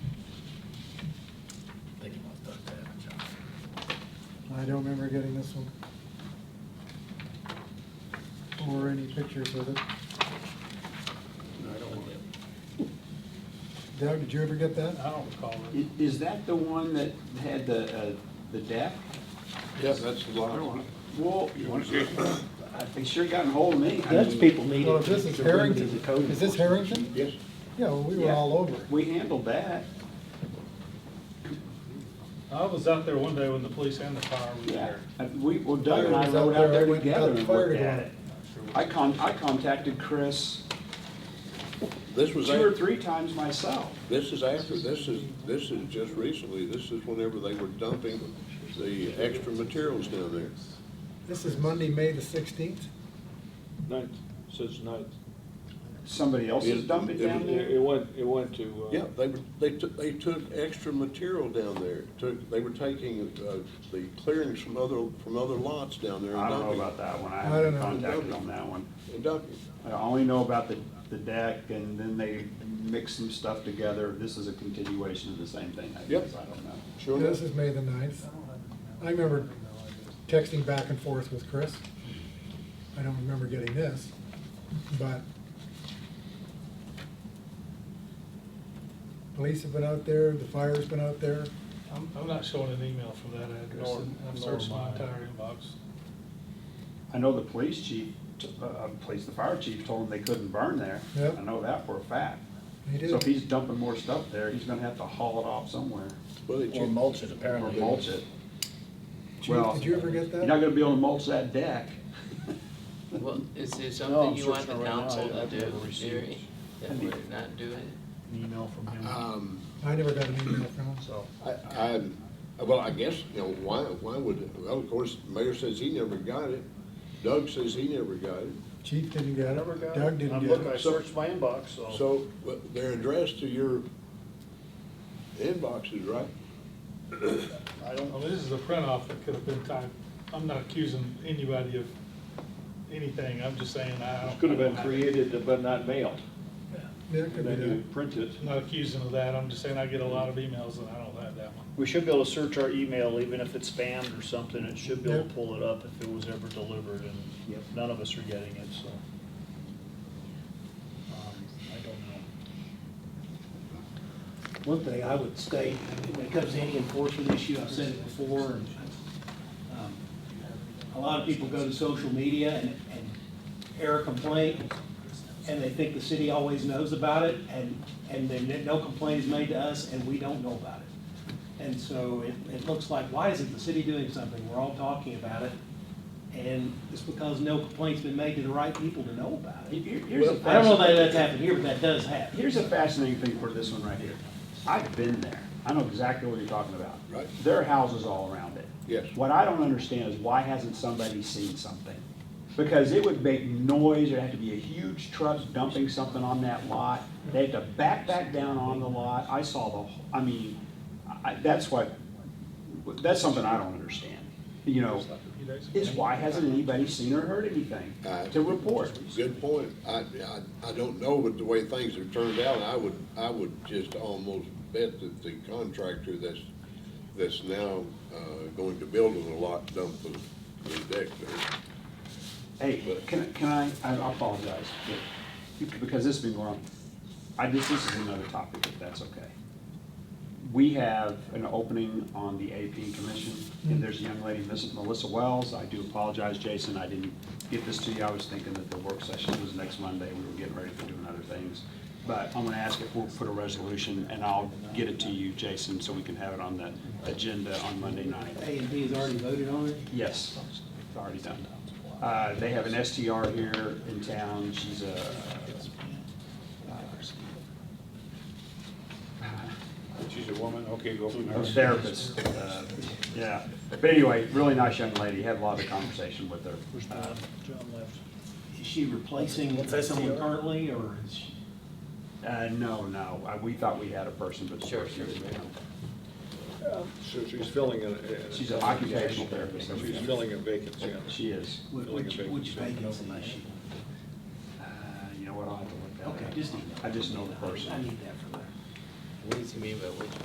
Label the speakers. Speaker 1: I don't remember getting this one. Or any pictures of it.
Speaker 2: I don't want it.
Speaker 1: Doug, did you ever get that?
Speaker 2: I don't recall it.
Speaker 3: I- Is that the one that had the, uh, the deck?
Speaker 4: Yes, that's the
Speaker 3: I don't
Speaker 4: lot.
Speaker 3: want to, well, I- they sure got a hold of me. I
Speaker 5: Dutch
Speaker 3: mean,
Speaker 5: people need it.
Speaker 1: Well, if this is
Speaker 5: to bring these
Speaker 1: Harrington,
Speaker 5: to code
Speaker 1: is this
Speaker 5: enforcement.
Speaker 1: Harrington?
Speaker 4: Yes,
Speaker 1: Yeah, well, we were
Speaker 3: Yeah.
Speaker 1: all over it.
Speaker 3: We handled that,
Speaker 2: I was out there one day when the police and the fire were
Speaker 3: yeah.
Speaker 2: there.
Speaker 3: I- We, well, Doug and I
Speaker 1: Was out
Speaker 3: rode out there
Speaker 1: already, got
Speaker 3: together
Speaker 1: the
Speaker 3: and
Speaker 1: fire
Speaker 3: looked at
Speaker 1: going.
Speaker 3: it. I con, I contacted Chris
Speaker 4: this was,
Speaker 3: two or
Speaker 4: af-
Speaker 3: three times myself.
Speaker 4: this is after, this is, this is just recently, this is whenever they were dumping the extra materials down there.
Speaker 1: This is Monday, May the sixteenth.
Speaker 6: Ninth, says ninth.
Speaker 3: Somebody else has
Speaker 4: It-
Speaker 3: dumped it
Speaker 4: it-
Speaker 3: down
Speaker 6: It it
Speaker 3: there.
Speaker 6: went, it went to, uh,
Speaker 4: Yeah, they were, they took, they took extra material down there, took, they were taking, uh, the clearings from other, from other lots down there
Speaker 3: I
Speaker 4: and
Speaker 3: don't know
Speaker 4: dumping.
Speaker 3: about that one, I
Speaker 1: I
Speaker 3: haven't
Speaker 1: don't
Speaker 4: know.
Speaker 3: contacted on that one.
Speaker 4: And dumping.
Speaker 3: I only know about the, the deck, and then they mixed some stuff together. This is a continuation of the same thing, I
Speaker 4: Yep.
Speaker 3: guess, I don't know.
Speaker 4: Sure enough.
Speaker 1: This is May the ninth. I remember texting back and forth with Chris. I don't remember getting this, but police have been out there, the fire's been out there.
Speaker 2: I'm, I'm not showing an email from that address.
Speaker 3: Nor-
Speaker 2: I've
Speaker 3: nor
Speaker 2: searched my
Speaker 3: mine.
Speaker 2: entire inbox.
Speaker 3: I know the police chief, t- uh, uh, police, the fire chief told them they couldn't burn there.
Speaker 1: Yep.
Speaker 3: I know that for a fact.
Speaker 1: They
Speaker 3: So if
Speaker 1: did.
Speaker 3: he's dumping more stuff there, he's gonna have to haul it off somewhere
Speaker 4: Well, they
Speaker 5: Or
Speaker 4: took-
Speaker 5: mulch it
Speaker 3: or
Speaker 5: apparently.
Speaker 3: mulch it.
Speaker 1: Chief,
Speaker 3: Well,
Speaker 1: did you ever get
Speaker 3: you're not
Speaker 1: that?
Speaker 3: gonna be able to mulch that deck.
Speaker 7: Well, is there
Speaker 6: No,
Speaker 7: something
Speaker 6: I'm
Speaker 7: you want the
Speaker 6: searching right now.
Speaker 7: council
Speaker 6: I-
Speaker 7: to
Speaker 6: I've
Speaker 7: do,
Speaker 6: never received
Speaker 7: Jerry, that
Speaker 3: Have you-
Speaker 7: we're not doing?
Speaker 6: an email from him.
Speaker 5: Uh,
Speaker 4: um,
Speaker 1: I never got an email from him, so.
Speaker 4: I, I, well, I guess, you know, why, why would, well, of course, the mayor says he never got it. Doug says he never got it.
Speaker 1: Chief didn't get
Speaker 6: Never got
Speaker 1: it,
Speaker 6: it.
Speaker 1: Doug didn't
Speaker 6: I'm
Speaker 1: get
Speaker 6: looking, I
Speaker 1: it.
Speaker 6: searched my inbox, so.
Speaker 4: So, but they're addressed to your inboxes, right?
Speaker 6: I
Speaker 2: Well,
Speaker 6: don't,
Speaker 2: this is a print off that could have been typed. I'm not accusing anybody of anything. I'm just saying I don't.
Speaker 6: it could have been
Speaker 2: I-
Speaker 6: created but not mailed.
Speaker 1: Yeah, it could
Speaker 6: And
Speaker 1: be
Speaker 6: then you
Speaker 1: that.
Speaker 6: print it.
Speaker 2: I'm not accusing of that. I'm just saying I get a lot of emails and I don't have that one.
Speaker 8: We should be able to search our email, even if it's spammed or something, it should be able to
Speaker 1: Yeah.
Speaker 8: pull it up if it was ever delivered, and none of us are getting it, so. Um, I don't know.
Speaker 5: One thing I would state, when it comes to any enforcement issue, I've said it before, and, um, a lot of people go to social media and, and air a complaint, and they think the city always knows about it, and, and then no complaint is made to us, and we don't know about it. And so it, it looks like, why isn't the city doing something? We're all talking about it, and it's because no complaint's been made to the right people to know about it.
Speaker 3: Here- here's a
Speaker 5: I don't know that
Speaker 3: fascinating-
Speaker 5: that's happened here, but that does happen.
Speaker 3: Here's a fascinating thing for this one right here. I've been there. I know exactly what you're talking about.
Speaker 4: Right.
Speaker 3: There are houses all around it.
Speaker 4: Yes.
Speaker 3: What I don't understand is why hasn't somebody seen something? Because it would make noise, there'd have to be a huge truck dumping something on that lot. They had to back back down on the lot. I saw the, wh- I mean, I, that's what, that's something I don't understand, you know? Is why hasn't anybody seen or heard anything
Speaker 4: I-
Speaker 3: to report?
Speaker 4: Good point. I, I, I don't know, but the way things have turned out, I would, I would just almost bet that the contractor that's, that's now, uh, going to build on the lot dumped the, the deck there.
Speaker 3: Hey, can, I- can I, I apologize, but, because this has been going on, I just, this is another topic, if that's okay. We have an opening on the AP commission, and there's a young lady, Miss Melissa Wells, I do apologize, Jason, I didn't get this to you, I was thinking that the work session was next Monday, we were getting ready for doing other things. But I'm gonna ask if we'll put a resolution, and I'll get it to you, Jason, so we can have it on the agenda on Monday night.
Speaker 5: A and B has already voted on it.
Speaker 3: Yes, it's already done. Uh, They have an STR here in town, she's a,
Speaker 6: She's a woman, okay, go from
Speaker 3: a
Speaker 6: there.
Speaker 3: therapist, uh, yeah. But anyway, really nice young lady, had a lot of conversation with her.
Speaker 8: Where's
Speaker 3: Uh,
Speaker 8: John? John left.
Speaker 5: Is she replacing someone currently, or is she?
Speaker 3: Uh, no, no, I- we thought we had a person, but the
Speaker 7: Sure,
Speaker 3: person
Speaker 7: sure.
Speaker 3: is-
Speaker 4: So she's filling a.
Speaker 3: She's an occupational therapist.
Speaker 4: a vacancy
Speaker 3: She is.
Speaker 5: Which, which which vacancy is she?
Speaker 3: Uh, You know what, I'll have to look that up.
Speaker 5: Okay, just email.
Speaker 3: I just know the person.
Speaker 5: I need that for that.
Speaker 7: What does he mean by which